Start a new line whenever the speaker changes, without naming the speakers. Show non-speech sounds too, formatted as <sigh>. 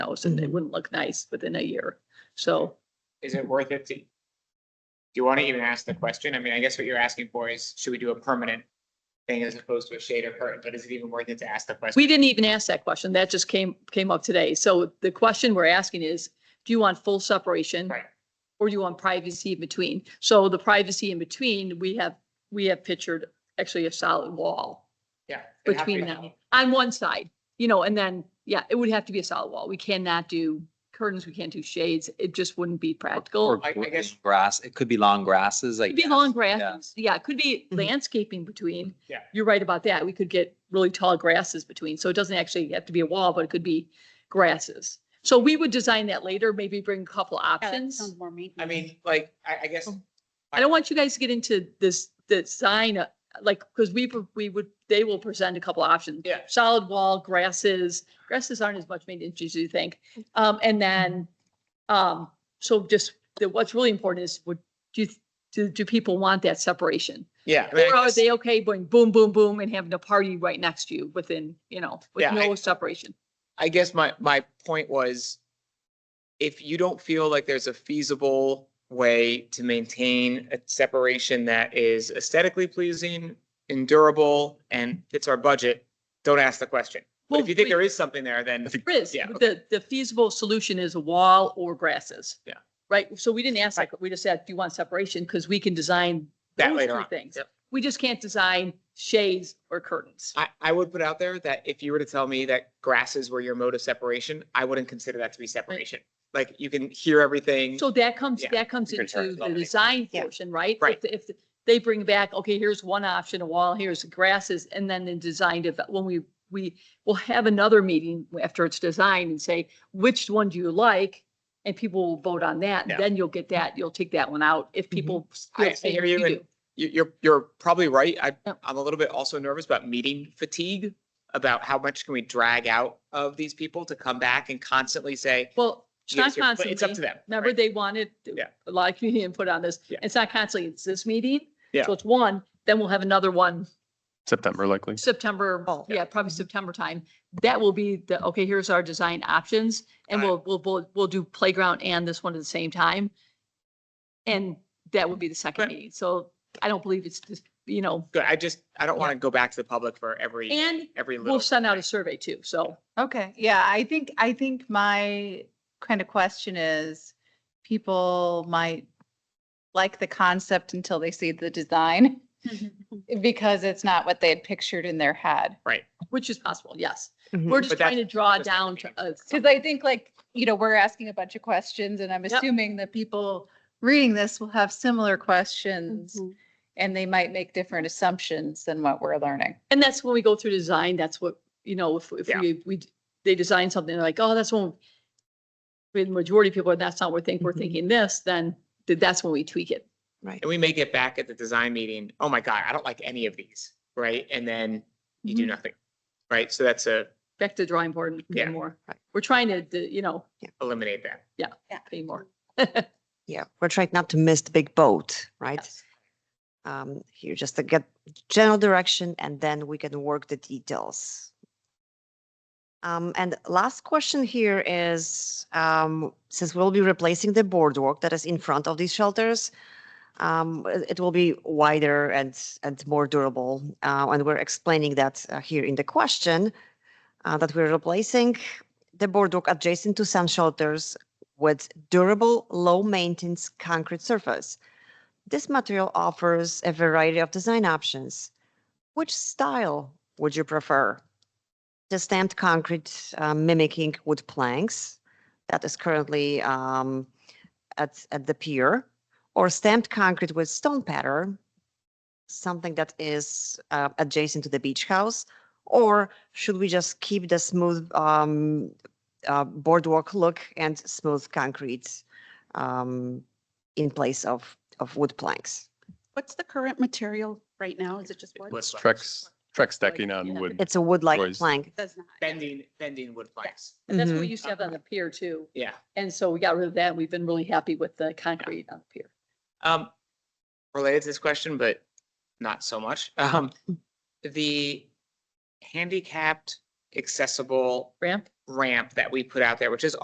house and
Mm-hmm.
it wouldn't look nice within a year. So
Is it worth it to? Do you want to even ask the question? I mean, I guess what you're asking for is, should we do a permanent thing as opposed to a shade or curtain? But is it even worth it to ask the question?
we didn't even ask that question. That just came, came up today. So the question we're asking is, do you want full separation?
Right.
Or do you want privacy in between? So the privacy in between, we have, we have pictured actually a solid wall
Yeah. it'd have to be
between them
hollow.
on one side, you know, and then, yeah, it would have to be a solid wall. We cannot do curtains. We can't do shades. It just wouldn't be practical.
I- I
gr-
guess-
Grass, it could be long grasses, like.
Could be long grasses. Yeah, it could be landscaping between.
Mm-hmm. Yeah.
You're right about that. We could get really tall grasses between. So it doesn't actually have to be a wall, but it could be grasses. So we would design that later, maybe bring a couple options.
I mean, like, I, I guess,
I don't want you guys to get into this, design, uh, like, because we, pro- we would, they will present a couple options.
Yeah.
Solid wall, grasses, grasses aren't as much maintenance as you think. Um, and then, um, so just, the- what's really important is, would, do, you do, do people want that separation?
yeah. I mean, I
Or are
guess-
they okay going boom, boom, boom and having a party right next to you within, you know, with
Yeah, I-
no separation?
I guess my, my point was, if you don't feel like there's a feasible way to maintain a separation that is aesthetically pleasing, endurable, and fits our budget, don't ask the question. But
Well,
if you think
we-
there is something there, then,
Riz,
yeah,
the, the feasible solution is a wall or grasses.
Yeah.
Right? So we didn't ask, like, we just said, do you want separation? Because we can design
That
those
later
three
on.
Things.
Yep.
We just can't design shades or curtains.
I, I would put out there that if you were to tell me that grasses were your mode of separation, I wouldn't consider that to be separation. Like, you can hear everything.
So that comes,
Yeah,
that comes
you can turn
into
it
the
on.
design
Yeah.
portion, right?
Right.
If, if they bring back, okay, here's one option, a wall, here's the grasses, and then the design, dev- when we, we will have another meeting after it's designed and say, which one do you like? And people will vote on that,
Yeah.
and then you'll get that, you'll take that one out if people. feel
I-
the
I
same
hear
as
you, and-
do.
you, you're, you're probably right. I,
Yep.
I'm a little bit also nervous about meeting fatigue, about how much can we drag out of these people to come back and constantly say,
Well, it's not
"Yes, you're-" but
constantly.
it's up to them.
Remember,
right?
they wanted
Yeah.
a lot of community input on this.
Yeah.
It's not constantly, it's this meeting.
Yeah.
So it's one, then we'll have another one
September likely.
September,
Fall.
yeah, probably September time. That will be the, okay, here's our design options and
Got it.
we'll, we'll, we'll, we'll do playground and this one at the same time. And that would be the second
Right.
meeting. So I don't believe it's just, you know,
Good. I just, I don't want to go back to the public for every,
and
every little.
we'll send out a survey too. So
Okay, <laughs> yeah, I think, I think my kind of question is, people might like the concept until they see the design <laughs> because it's not what they had pictured in their head.
which is possible, yes.
Mhm.
We're just
But
trying to draw
that's not
down
the
to a
Because I think like, you know, we're asking a bunch of questions and I'm
Yep.
assuming that people reading this will have similar questions
Mhm.
and they might make different assumptions than what we're learning.
And that's when we go through design, that's what, you know, if, if
Yeah.
we, we, they design something they're like, oh, that's when with the majority of people, that's not what we think,
Mm-hmm.
we're
Mhm.
thinking this, then th- that's when we tweak it.
And we may get back at the design meeting, oh my God, I don't like any of these, right? And then you do
Mm-hmm.
Mhm.
nothing, right? So that's a,
Back to the drawing board and pay
Yeah.
more. We're trying to, d- you know,
eliminate that.
pay more.
Yeah, we're trying not to miss the big boat, right?
Yes.
Um, here, just to get general direction and then we can work the details. Um, and last question here is, um, since we'll be replacing the boardwalk that is in front of these shelters, um, it it will be wider and, and more durable. Uh, and we're explaining that uh, here in the question, uh, that we're replacing the boardwalk adjacent to sun shelters with durable, low-maintenance concrete surface. This material offers a variety of design options. Which style would you prefer? The stamped concrete uh, mimicking wood planks that is currently um, at, at the pier, or stamped concrete with stone pattern, something that is uh, adjacent to the beach house, or should we just keep the smooth um, uh, boardwalk look and smooth concrete um, in place of, of wood planks.
<laughs> What's the current material right now? Is it just wood?
Let's-
Trex, Trex decking
yeah.
on wood.
It's a wood-like
Boys.
plank.
Does not.
Bending, bending wood planks.
And that's what we
Mm-hmm.
Mhm.
used to have on the pier too.
Yeah.
And so we got rid of that. and We've been really happy with the concrete on the pier.
Um, related to this question, but not so much. <laughs> Um, the handicapped accessible
Ramp?
ramp that we put out there, which is